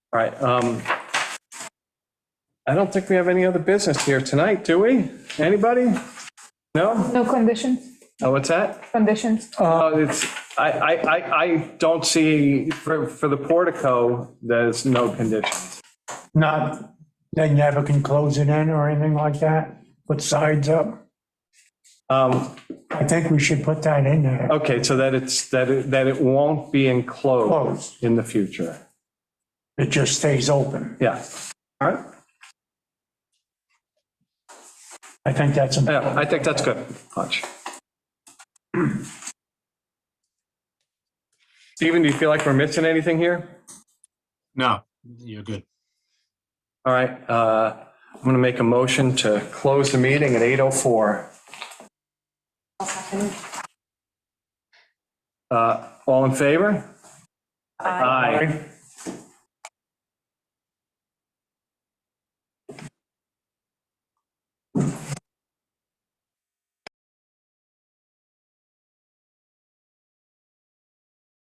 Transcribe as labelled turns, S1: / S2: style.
S1: All right. um, I don't think we have any other business here tonight, do we? Anybody? No?
S2: No conditions,
S1: Oh, what's that?
S2: conditions.
S1: Uh, It's, I, I, I I don't see, for, for the portico, there's no conditions.
S3: Not, they never can close it in or anything like that, put sides up.
S1: Um,
S3: I think we should put that in there.
S1: Okay, so that it's, that it, that it won't be enclosed
S3: Closed.
S1: in the future.
S3: It just stays open.
S1: Yeah. All right.
S3: I think that's, a-
S1: Yeah, I think that's good. Punch. Stephen, do you feel like we're missing anything here?
S4: No, you're good.
S1: All right, uh, I'm going to make a motion to close the meeting at 8:04. Uh, All in favor? Aye.